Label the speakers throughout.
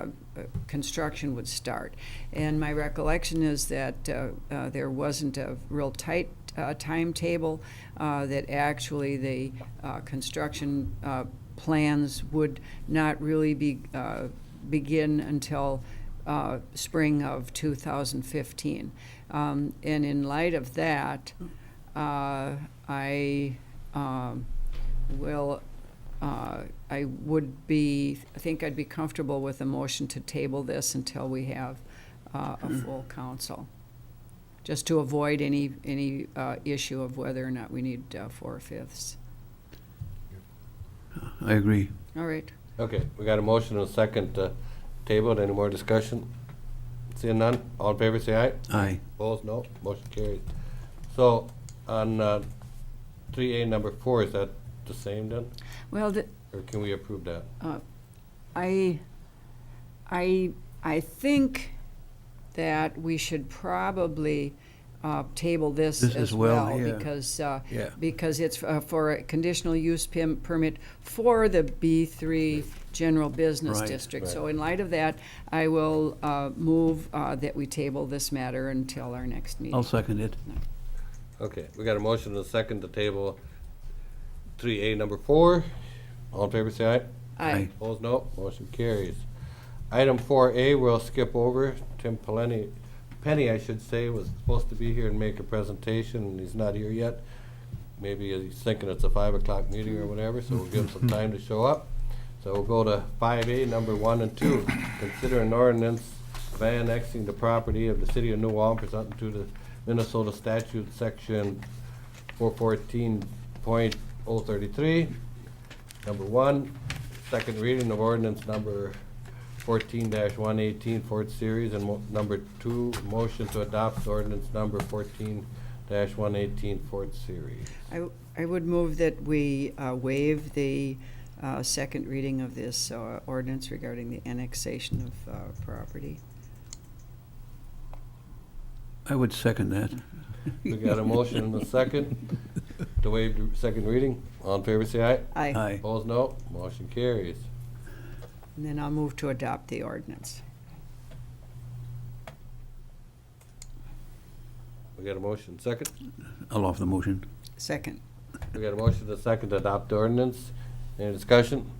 Speaker 1: uh, uh, construction would start. And my recollection is that uh, uh, there wasn't a real tight uh, timetable, uh, that actually the uh, construction uh, plans would not really be, uh, begin until uh, spring of 2015. Um, And in light of that, uh, I um, will uh, I would be, I think I'd be comfortable with a motion to table this until we have uh, a full council, just to avoid any, any uh, issue of whether or not we need uh, four-fifths.
Speaker 2: I agree.
Speaker 1: All right,
Speaker 3: Okay, we got a motion and a second to table. Any more discussion? Seeing none, all in favor, say aye.
Speaker 2: Aye.
Speaker 3: Opposed, no. Motion carried. So on uh, three A number four, is that the same then?
Speaker 1: well, the-
Speaker 3: Or can we approve that?
Speaker 1: I, I, I think that we should probably uh, table this
Speaker 2: This
Speaker 1: as
Speaker 2: as well,
Speaker 1: well.
Speaker 2: yeah.
Speaker 1: Because, uh,
Speaker 2: Yeah.
Speaker 1: because it's uh, for a conditional use pim- permit for the B3 General Business
Speaker 2: Right.
Speaker 1: District. So in light of that, I will uh, move uh, that we table this matter until our next
Speaker 2: I'll
Speaker 1: meeting.
Speaker 2: second it.
Speaker 3: Okay, we got a motion and a second to table three A number four. All in favor, say aye.
Speaker 1: Aye.
Speaker 3: Opposed, no. Motion carries. Item four A, we'll skip over. Tim Peleni, Penny, I should say, was supposed to be here and make a presentation, and he's not here yet. Maybe he's thinking it's a five o'clock meeting or whatever, so we'll give him some time to show up. So we'll go to five A, number one and two. Consider an ordinance of annexing the property of the city of New Ulm pursuant to the Minnesota statute, section four fourteen point oh thirty-three. Number one, second reading of ordinance number fourteen one eighteen, fourth series, and mo- number two, motion to adopt ordinance number fourteen dash one eighteen, fourth series.
Speaker 1: I, I would move that we uh, waive the uh, second reading of this uh, ordinance regarding the annexation of uh, property.
Speaker 2: I would second that.
Speaker 3: We got a motion and a second to waive the second reading. All in favor, say aye.
Speaker 1: Aye.
Speaker 2: Aye.
Speaker 3: Opposed, no. Motion carries.
Speaker 1: And then I'll move to adopt the ordinance.
Speaker 3: We got a motion, second.
Speaker 2: I'll offer the motion.
Speaker 1: Second.
Speaker 3: We got a motion and a second to adopt the ordinance. Any discussion?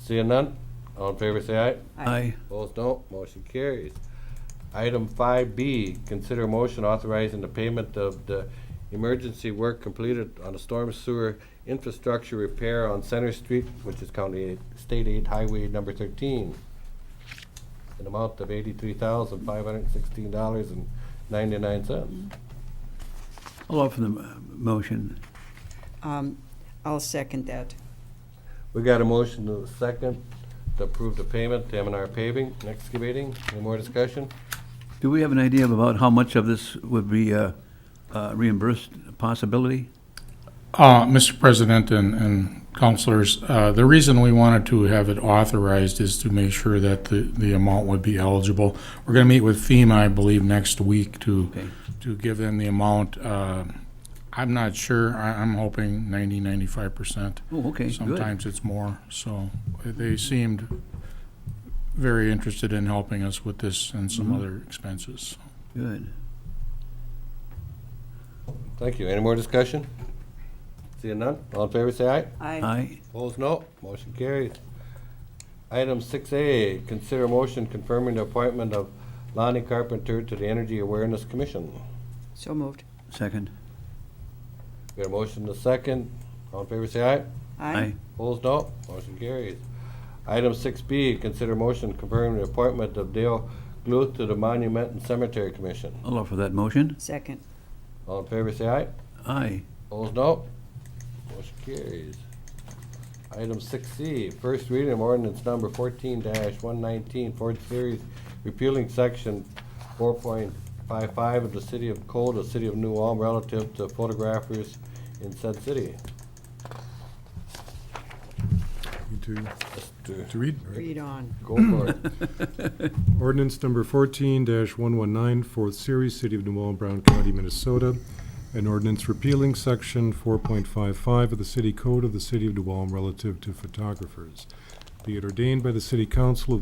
Speaker 3: Seeing none? All in favor, say aye.
Speaker 2: Aye.
Speaker 3: Opposed, no. Motion carries. Item five B, consider motion authorizing the payment of the emergency work completed on the storm sewer infrastructure repair on Center Street, which is County Eight, State Eight Highway number thirteen. An amount of eighty-three thousand, five hundred and sixteen dollars and ninety-nine cents.
Speaker 2: I'll offer the m- motion.
Speaker 1: Um, I'll second that.
Speaker 3: We got a motion to the second to approve the payment to M and R paving, and excavating. Any more discussion?
Speaker 2: Do we have an idea about how much of this would be uh, uh, reimbursed possibility?
Speaker 4: Uh, Mr. President and, and counselors, uh, the reason we wanted to have it authorized is to make sure that the, the amount would be eligible. We're gonna meet with FEMA, I believe, next week to,
Speaker 2: Okay.
Speaker 4: to give them the amount. Uh, I'm not sure, I, I'm hoping ninety, ninety-five percent.
Speaker 2: Oh, okay, good.
Speaker 4: Sometimes it's more, so they seemed very interested in helping us with this and some
Speaker 2: Mhm.
Speaker 4: other expenses.
Speaker 2: Good.
Speaker 3: Thank you. Any more discussion? Seeing none? All in favor, say aye.
Speaker 2: Aye.
Speaker 3: Opposed, no. Motion carries. Item six A, consider motion confirming the appointment of Lonnie Carpenter to the Energy Awareness Commission.
Speaker 1: So moved.
Speaker 2: Second.
Speaker 3: Got a motion to second. All in favor, say aye.
Speaker 2: Aye.
Speaker 3: Opposed, no. Motion carries. Item six B, consider motion confirming the appointment of Dale Gluth to the Monument and Cemetery Commission.
Speaker 2: I'll offer that motion.
Speaker 1: Second.
Speaker 3: All in favor, say aye.
Speaker 2: Aye.
Speaker 3: Opposed, no. Motion carries. Item six C, first reading of ordinance number fourteen one nineteen, fourth series, repealing section four point five five of the city of Code, the city of New Ulm relative to photographers in said city.
Speaker 5: To,
Speaker 3: To
Speaker 5: to read,
Speaker 1: Read on.
Speaker 3: Go for it.
Speaker 5: ordinance number fourteen one one nine, fourth series, City of New Ulm, Brown County, Minnesota. An ordinance repealing section four point five five of the city code of the City of New Ulm relative to photographers. Be it ordained by the City Council of